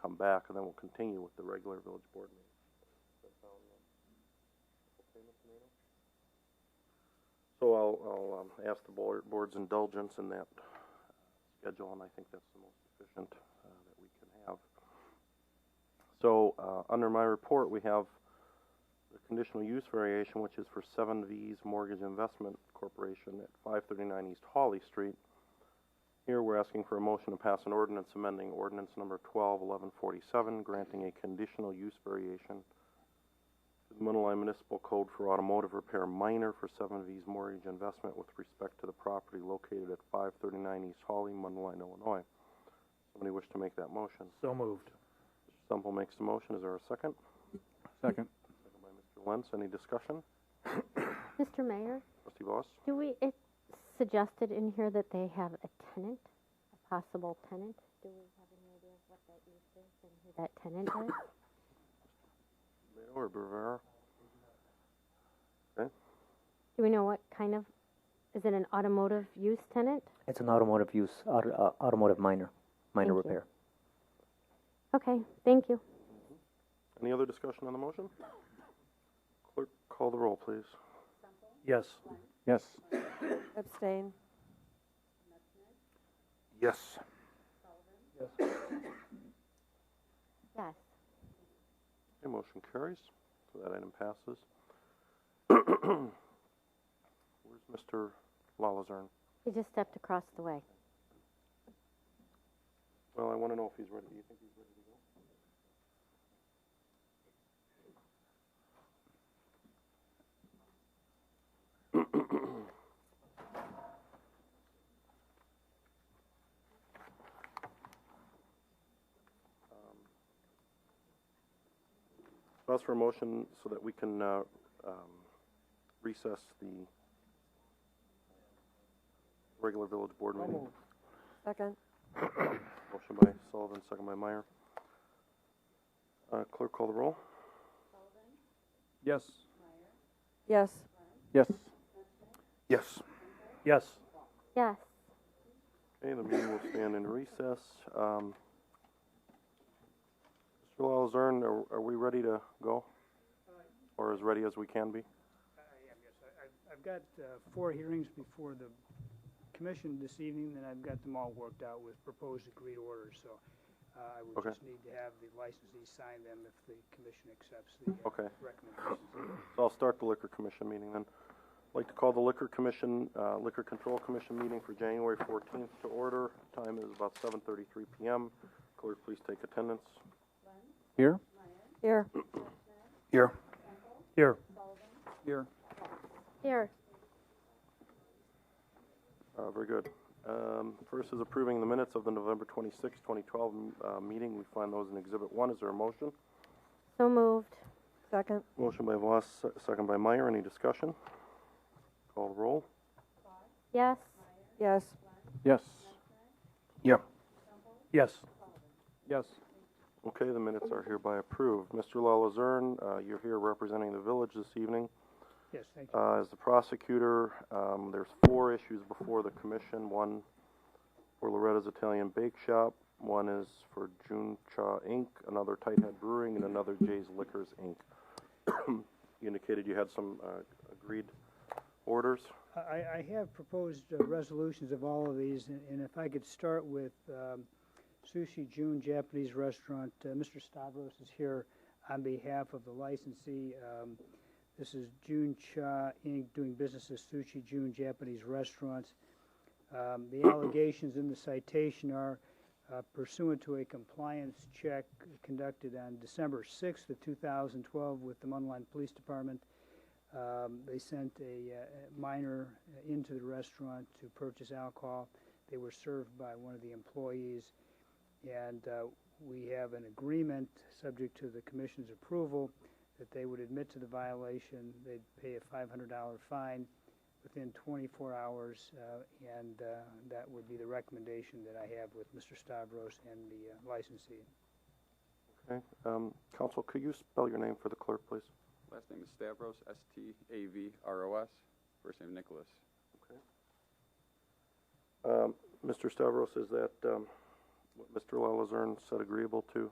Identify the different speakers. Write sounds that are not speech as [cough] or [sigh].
Speaker 1: come back, and then we'll continue with the regular village board meeting. uh, So I'll, I'll um, ask the board, board's indulgence in that uh, schedule, and I think that's the most efficient uh, that we can have. So, uh, under my report, we have the conditional use variation, which is for Seven V's Mortgage Investment Corporation at five thirty-nine East Hawley Street. Here, we're asking for a motion to pass an ordinance amending ordinance number twelve eleven forty-seven, granting a conditional use variation to the Mundelein Municipal Code for Automotive Repair Minor for Seven V's Mortgage Investment with respect to the property located at five thirty-nine East Hawley, Mundelein, Illinois. Somebody wish to make that motion?
Speaker 2: So moved.
Speaker 1: Stumple makes the motion. Is there a second? Second
Speaker 2: Second.
Speaker 1: by Mr. Lentz. Any discussion?
Speaker 3: Mr. Mayor,
Speaker 1: Trustee Voss?
Speaker 3: do we, it's suggested in here that they have a tenant, a possible tenant. Do we have any idea of what that use is and who that tenant is?
Speaker 1: Leo or Rivera?
Speaker 3: Do we know what kind of, is it an automotive use tenant?
Speaker 4: It's an automotive use, auto, uh, automotive minor,
Speaker 3: Thank
Speaker 4: minor
Speaker 3: you.
Speaker 4: repair.
Speaker 3: Okay, thank you.
Speaker 1: Any other discussion on the motion? Clerk, call the roll, please.
Speaker 2: Yes. Yes.
Speaker 5: Abstain.
Speaker 1: Yes.
Speaker 3: Yes.
Speaker 1: Okay, motion carries. So that item passes. [clears throat] Where's Mr. Lalazern?
Speaker 3: He just stepped across the way.
Speaker 1: Well, I want to know if he's ready. Do you think he's ready to go? Um, Ask for a motion so that we can uh, um, recess the regular village board meeting.
Speaker 5: Second.
Speaker 1: Motion by Sullivan, second by Meyer. Uh, clerk call the roll?
Speaker 2: Yes.
Speaker 5: Yes.
Speaker 2: Yes.
Speaker 1: Yes.
Speaker 2: Yes.
Speaker 3: Yes.
Speaker 1: Okay, the meeting will stand in recess. Um, Mr. Lalzern, are, are we ready to go? Or as ready as we can be?
Speaker 6: I am, yes. I- I- I've got uh, four hearings before the commission this evening, and I've got them all worked out with proposed agreed orders, so uh, I would
Speaker 1: Okay.
Speaker 6: just need to have the licensees sign them if the commission accepts the uh,
Speaker 1: Okay.
Speaker 6: recommendations.
Speaker 1: So I'll start the liquor commission meeting then. I'd like to call the liquor commission, uh, liquor control commission meeting for January fourteenth to order. Time is about seven thirty-three PM. Clerk, please take attendance.
Speaker 2: Here?
Speaker 5: Here.
Speaker 2: Here. Here. Here.
Speaker 3: Here.
Speaker 1: Uh, very good. Um, first is approving the minutes of the November 26, 2012 m- uh, meeting. We find those in Exhibit 1. Is there a motion?
Speaker 3: So moved.
Speaker 5: Second.
Speaker 1: Motion by Voss, se- second by Meyer. Any discussion? Call the roll.
Speaker 3: Yes.
Speaker 5: Yes.
Speaker 2: Yes. Yeah. Yes. Yes.
Speaker 1: Okay, the minutes are hereby approved. Mr. Lalazern, uh, you're here representing the village this evening.
Speaker 6: Yes, thank you.
Speaker 1: Uh, as the prosecutor, um, there's four issues before the commission. One for Loretta's Italian Bake Shop, one is for June Cha Inc., another Tighthead Brewing, and another Jay's Liquors Inc. [clears throat] you indicated you had some uh, agreed orders.
Speaker 6: I, I have proposed uh, resolutions of all of these, and and if I could start with um, Sushi June Japanese Restaurant. Uh, Mr. Stavros is here on behalf of the licensee. Um, This is June Cha Inc., doing business as Sushi June Japanese Restaurants. Um, The allegations in the citation are uh, pursuant to a compliance check conducted on December 6th of 2012 with the Mundaline Police Department. Um, They sent a uh, a minor into the restaurant to purchase alcohol. They were served by one of the employees. And uh, we have an agreement, subject to the commission's approval, that they would admit to the violation. They'd pay a $500 fine within 24 hours. uh, And uh, that would be the recommendation that I have with Mr. Stavros and the uh, licensee.
Speaker 1: Okay. Um, Council, could you spell your name for the clerk, please?
Speaker 7: Last name is Stavros, S-T-A-V-R-O-S. First name Nicholas.
Speaker 1: Um, Mr. Stavros, is that um, what Mr. Lalazern said agreeable to?